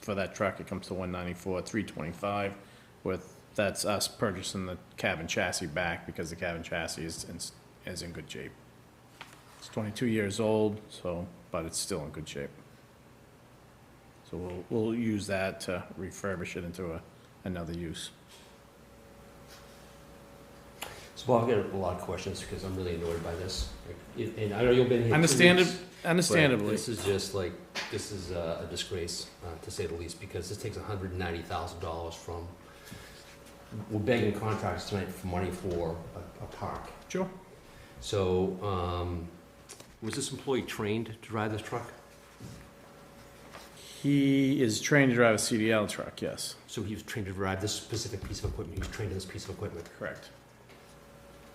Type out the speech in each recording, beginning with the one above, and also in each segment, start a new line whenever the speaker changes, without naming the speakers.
for that truck, it comes to one ninety-four, three twenty-five, with, that's us purchasing the cabin chassis back, because the cabin chassis is, in- is in good shape. It's twenty-two years old, so, but it's still in good shape. So we'll, we'll use that to refurbish it into a, another use.
So Bob, I've got a lot of questions because I'm really annoyed by this. Like, it- And I know you've been here. two
Understandab-
weeks, but
understandably,
This is just like, this is uh, a disgrace, uh, to say the least, because this takes hundred and ninety thousand dollars from, we're begging contractors tonight for money for a, a park.
Sure.
So, um, was this employee trained to drive this truck?
he is trained to drive a CDL truck, yes,
So he was trained to drive this specific piece of equipment, he was trained in this piece of equipment.
correct.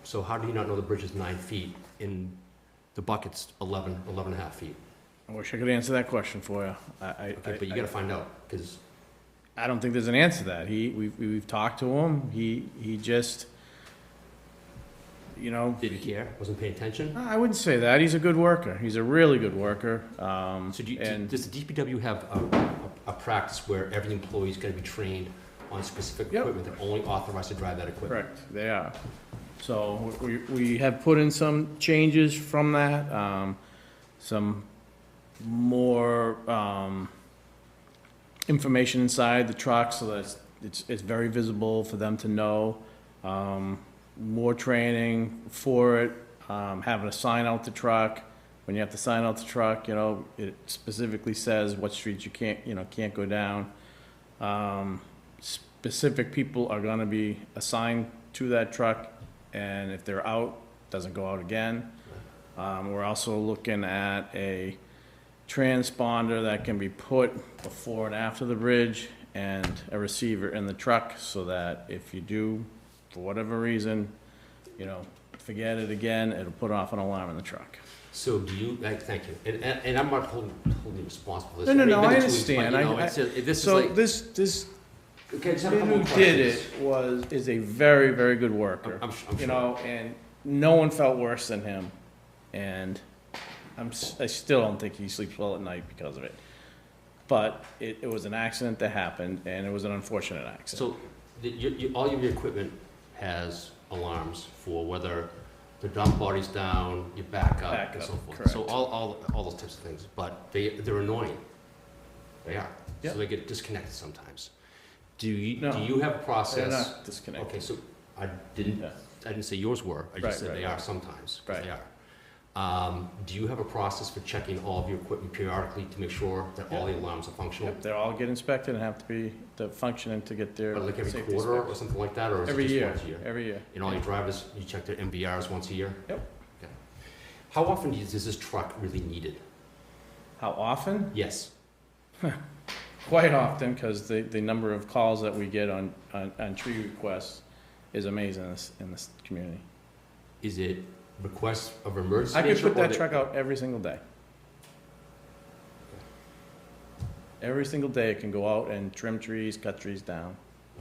So how do you not know the bridge is nine feet and the bucket's eleven, eleven and a half feet?
I wish I could answer that question for you. I, I.
Okay, but you
I-
gotta find out, because
I don't think there's an answer to that. He, we've, we've talked to him. He, he just, you know,
didn't care, wasn't paying attention.
I wouldn't say that. He's a good worker. He's a really good worker. Um,
So do, you- do-
and
does the DPW have a, a, a practice where every employee's gonna be trained on specific
Yep.
equipment, they're only authorized to drive that equipment?
correct, they are. So we, we have put in some changes from that, um, some more, um, information inside the truck so that it's- it's, it's very visible for them to know. Um, more training for it, um, having to sign out the truck. When you have to sign out the truck, you know, it specifically says what streets you can't, you know, can't go down. Um, specific people are gonna be assigned to that truck, and if they're out, doesn't go out again. Um, we're also looking at a transponder that can be put before and after the bridge and a receiver in the truck so that if you do, for whatever reason, you know, forget it again, it'll put off an alarm in the truck.
So do you, like, thank you, and, and, and I'm not holding, holding you responsible for this.
No, no,
mean,
no,
you've
I
been two weeks, but, you
understand. I-
know, it's
I-
just- it- This is
So
like,
this, this
okay, I just have a
kid
couple of
who
questions.
did it was, is a very, very good worker.
I'm, I'm su- I'm
you
sure.
know, and no one felt worse than him. And I'm, s- I still don't think he sleeps well at night because of it. But it, it was an accident that happened, and it was an unfortunate accident.
So, the, your, your, all of your equipment has alarms for whether the dump body's down, your backup, and so
Backup,
forth. So
correct.
all, all, all those types of things, but they, they're annoying. They are.
Yeah.
So they get disconnected sometimes. Do you,
No.
do you have a
They're
process?
not disconnected.
Okay, so I didn't,
Yeah.
I didn't say yours were, I
Right,
just said
right,
they
right.
are sometimes, 'cause
Right.
they are. Um, do you have a process for checking all of your equipment periodically to make sure that all the alarms are functional?
Yep, They're all get inspected and have to be, to functioning to get their
Or Like every
safety
quarter
inspect-
or something like that, or is it
Every
just
year,
once a year?
every year.
And all your drivers, you check their MBRs once a year?
Yep.
Okay. How often is is this truck really needed?
How often?
Yes.
Quite often, because the, the number of calls that we get on, on, on tree requests is amazing in this, in this community.
Is it requests of emergency
I could
nature
put
or
that
the-
truck out every single day. Every single day it can go out and trim trees, cut trees down.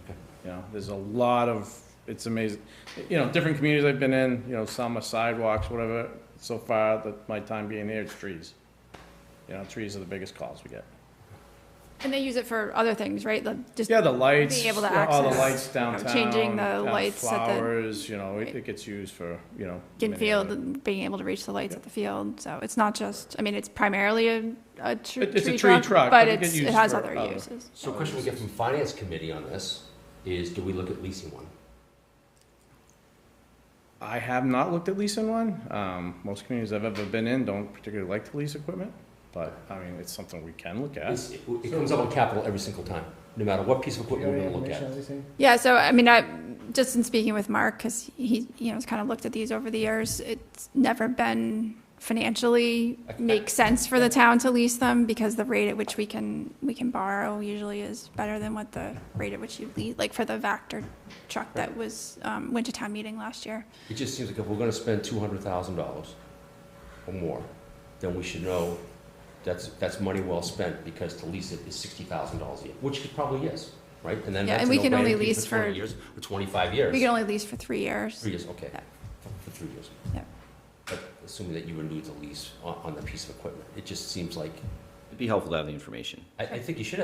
Okay.
You know, there's a lot of, it's amazing. You know, different communities I've been in, you know, some are sidewalks, whatever, so far, that my time being here, it's trees. You know, trees are the biggest calls we get.
And they use it for other things, right? The- Just,
Yeah, the lights,
Being able to
yeah, all the
access-
lights downtown.
Changing the
uh,
lights at the-
Flowers, you know, it,
Right.
it gets used for, you know.
in
many
field,
other-
and being able to reach the lights
Yeah.
at the field, so it's not just, I mean, it's primarily a, a tr-
It- it's a tree
tree
truck,
truck,
but
but
it
it's,
get
it
used
has
for
other
other-
uses.
So a question we get from Finance Committee on this is, do we look at leasing one?
I have not looked at leasing one. Um, most communities I've ever been in don't particularly like to lease equipment, but, I mean, it's something we can look at.
It's- It it comes up on capital every single time, no matter what piece of equipment we're gonna look at.
Yeah, so, I mean, I, just in speaking with Mark, because he, you know, has kind of looked at these over the years, it's never been financially
I- I-
make sense for the town to lease them, because the rate at which we can, we can borrow usually is better than what the rate at which you lease, like for the Vector truck that was, um, went to town meeting last year.
It just seems like if we're gonna spend two hundred thousand dollars or more, then we should know that's, that's money well spent, because to lease it is sixty thousand dollars a year, which it probably is, right? then
Yeah,
that's
and
a
we can
no-brainer
only
fee
lease for-
20 years Or twenty-five years.
We can only lease for three years.
Three years, okay,
Yeah.
for three years.
Yeah.
But assuming that you renewed the lease on, on the piece of equipment, it just seems like,
It'd be helpful to have the information.
I, I think you should have